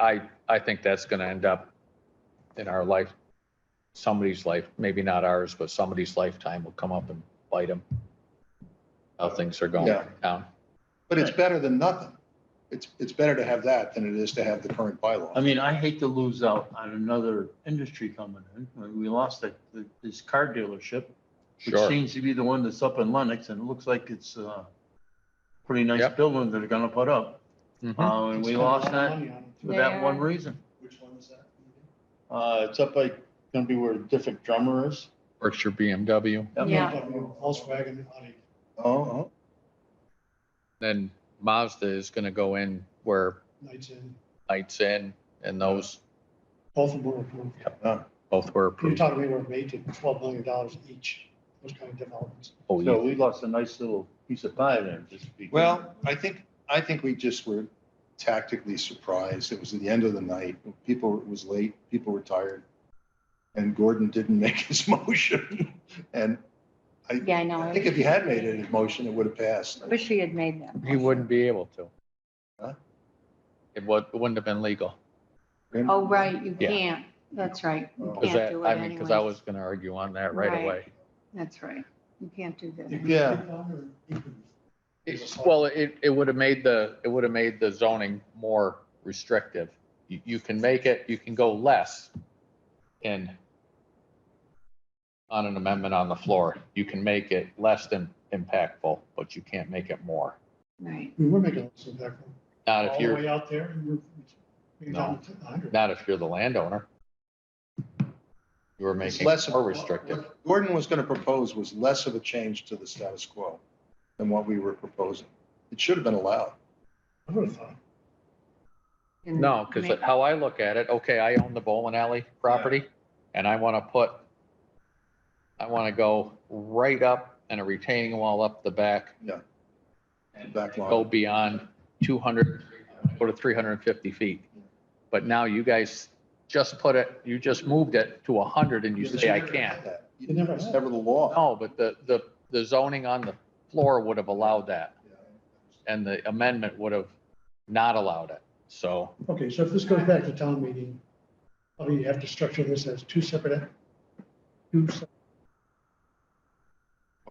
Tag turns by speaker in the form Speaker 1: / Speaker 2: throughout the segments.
Speaker 1: I, I think that's going to end up in our life, somebody's life, maybe not ours, but somebody's lifetime will come up and bite them. How things are going
Speaker 2: Yeah.
Speaker 1: in town.
Speaker 2: But it's better than nothing. It's, it's better to have that than it is to have the current
Speaker 3: I
Speaker 2: bylaw.
Speaker 3: mean, I hate to lose out on another industry coming in. I mean, We lost that, th- this car dealership, which
Speaker 1: Sure.
Speaker 3: seems to be the one that's up in Lennox, and it looks like it's a pretty nice
Speaker 1: Yep.
Speaker 3: building that they're gonna put up.
Speaker 1: Mhm.
Speaker 3: Uh, and we lost that for that one reason.
Speaker 2: Which one is that?
Speaker 3: Uh, it's up like, gonna be where a different drummer is.
Speaker 1: Berkshire BMW,
Speaker 3: That
Speaker 4: Yeah.
Speaker 5: Volkswagen, Audi.
Speaker 2: Oh,
Speaker 1: then Mazda is going to go in where
Speaker 5: Knights Inn,
Speaker 1: Knights Inn and those
Speaker 5: both of them were approved.
Speaker 1: both were
Speaker 5: You're
Speaker 1: approved.
Speaker 5: talking we were eight to twelve million dollars each, those kind of developments.
Speaker 1: Oh,
Speaker 3: one- So
Speaker 1: yeah.
Speaker 3: we lost a nice little piece of pie there, just to be.
Speaker 2: well, I think, I think we just were tactically surprised. It was the end of the night. People, it was late, people were tired. And Gordon didn't make his motion. And
Speaker 4: Yeah, I know.
Speaker 2: I think if he had made it his motion, it would have passed.
Speaker 4: I Wish he had made that.
Speaker 1: He wouldn't be able to.
Speaker 2: Huh?
Speaker 1: It would, wouldn't have been legal.
Speaker 4: Oh, right, you
Speaker 1: Yeah.
Speaker 4: can't. That's right. You
Speaker 2: Oh.
Speaker 1: Because
Speaker 4: can't
Speaker 1: that,
Speaker 4: do it
Speaker 1: I mean, because I
Speaker 4: anyways.
Speaker 1: was going to argue on that right
Speaker 4: Right.
Speaker 1: away.
Speaker 4: That's right. You can't do that.
Speaker 2: Yeah.
Speaker 1: It's- Well, it, it would have made the, it would have made the zoning more restrictive. You, you can make it, you can go less in on an amendment on the floor. You can make it less than impactful, but you can't make it more.
Speaker 4: Right.
Speaker 5: We were making lots of that,
Speaker 1: Not
Speaker 5: all
Speaker 1: if
Speaker 5: the
Speaker 1: you're,
Speaker 5: way out there, and we're, we down to a hundred.
Speaker 1: not if you're the landowner. You were
Speaker 2: It's
Speaker 1: making
Speaker 2: less
Speaker 1: it
Speaker 2: of
Speaker 1: more
Speaker 2: a-
Speaker 1: restrictive.
Speaker 2: what Gordon was going to propose was less of a change to the status quo than what we were proposing. It should have been allowed.
Speaker 5: I would have thought,
Speaker 4: And
Speaker 1: No, because
Speaker 4: make-
Speaker 1: how I look at it, okay, I own the bowling alley property and I want to put, I want to go right up and a retaining wall up the back
Speaker 2: Back
Speaker 1: go
Speaker 2: line.
Speaker 1: beyond 200, go to 350 feet. But now you guys just put it, you just moved it to 100 and you say, I can't.
Speaker 2: You never, it's never the law.
Speaker 1: No, but the, the, the zoning on the floor would have allowed that and the amendment would have not allowed it. So,
Speaker 5: okay, so if this goes back to town meeting, I mean, you have to structure this as two separate, act- two separate,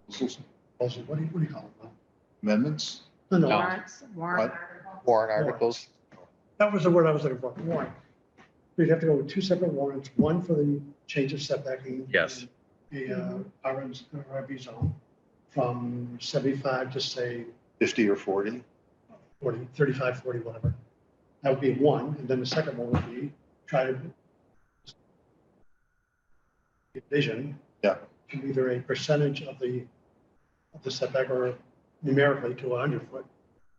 Speaker 5: proposals. what do you, what do you call it?
Speaker 2: Amendments?
Speaker 5: No, no,
Speaker 1: No.
Speaker 4: Warrants, warrant articles.
Speaker 1: warrant articles,
Speaker 5: That was the word I was looking for, warrant. We'd have to go with two separate warrants, one for the change of setback. in
Speaker 1: Yes.
Speaker 5: The uh, RM's, RB zone from 75 to say
Speaker 2: 50 or 40?
Speaker 5: 40, 35, 40, whatever. That would be one, and then the second one would be try to division.
Speaker 2: Yeah.
Speaker 5: To either a percentage of the, of the setback or numerically to 100 foot.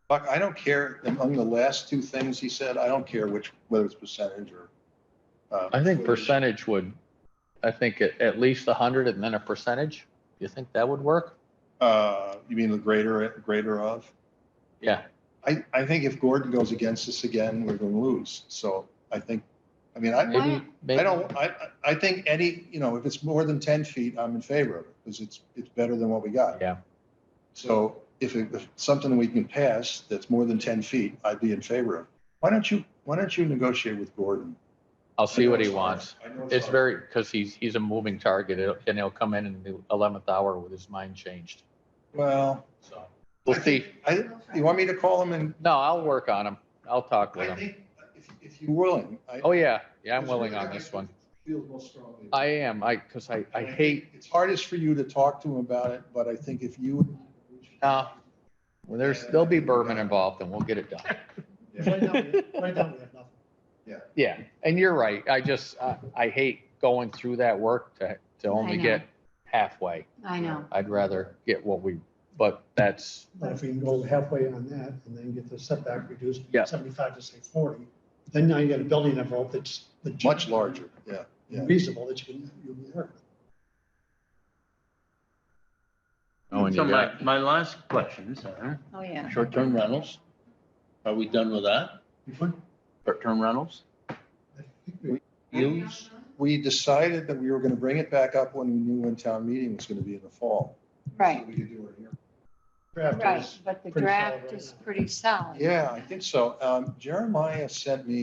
Speaker 2: Buck, I don't care, among the last two things he said, I don't care which, whether it's percentage or. uh,
Speaker 1: I think
Speaker 2: footage.
Speaker 1: percentage would, I think at, at least 100 and then a percentage. You think that would work?
Speaker 2: Uh, You mean the greater, greater of?
Speaker 1: Yeah.
Speaker 2: I, I think if Gordon goes against us again, we're going to lose. So I think, I mean, I,
Speaker 1: Maybe, maybe.
Speaker 2: I don't, I, I- I think any, you know, if it's more than ten feet, I'm in favor of it, because it's, it's better than what we got.
Speaker 1: Yeah.
Speaker 2: So if it, if something we can pass that's more than ten feet, I'd be in favor of. Why don't you, why don't you negotiate with Gordon?
Speaker 1: I'll see what
Speaker 2: I know
Speaker 1: he
Speaker 2: hard.
Speaker 1: wants.
Speaker 2: I know
Speaker 1: It's
Speaker 2: hard.
Speaker 1: very, because he's, he's a moving target and he'll- and he'll come in in the 11th hour with his mind changed.
Speaker 2: Well,
Speaker 1: So we'll see.
Speaker 2: I, you want me to call him and,
Speaker 1: No, I'll work on him. I'll talk with
Speaker 2: I
Speaker 1: him.
Speaker 2: think, if, if you're willing. I-
Speaker 1: Oh, yeah. Yeah, I'm willing on this one.
Speaker 2: Feel most strongly.
Speaker 1: I am. I, because I, I hate,
Speaker 2: It's hardest for you to talk to him about it, but I think if you.
Speaker 1: no. Well, uh, there's, there'll be bourbon involved and we'll get it done.
Speaker 5: Right now, we- right now, we have nothing.
Speaker 1: Yeah. And you're right. I just, I, I hate going through that work to, to only
Speaker 4: know.
Speaker 1: get halfway.
Speaker 4: I know.
Speaker 1: I'd rather get what we, but that's,
Speaker 5: But if we can go halfway on that and then get the setback reduced
Speaker 1: Yeah.
Speaker 5: from seventy-five to say forty, then now you got a building envelope that's. that's
Speaker 2: Much larger, yeah. yeah.
Speaker 5: Reasonable that you can, you can work.
Speaker 1: Oh, and
Speaker 3: So
Speaker 1: you
Speaker 3: my,
Speaker 1: got-
Speaker 3: my last question is, uh,
Speaker 4: Oh, yeah.
Speaker 3: short-term rentals. Are we done with that?
Speaker 5: with. You would-
Speaker 3: Short-term rentals?
Speaker 5: I think we-
Speaker 2: Use, we decided that we were gonna bring it back up when we knew when town meeting was gonna be in the fall.
Speaker 4: Right,
Speaker 2: We could do it here.
Speaker 5: draft
Speaker 4: right.
Speaker 5: is-
Speaker 4: But the
Speaker 5: pretty solid
Speaker 4: draft
Speaker 5: right
Speaker 4: is
Speaker 5: now.
Speaker 4: pretty solid.
Speaker 2: Yeah, I think so. Um, Jeremiah sent me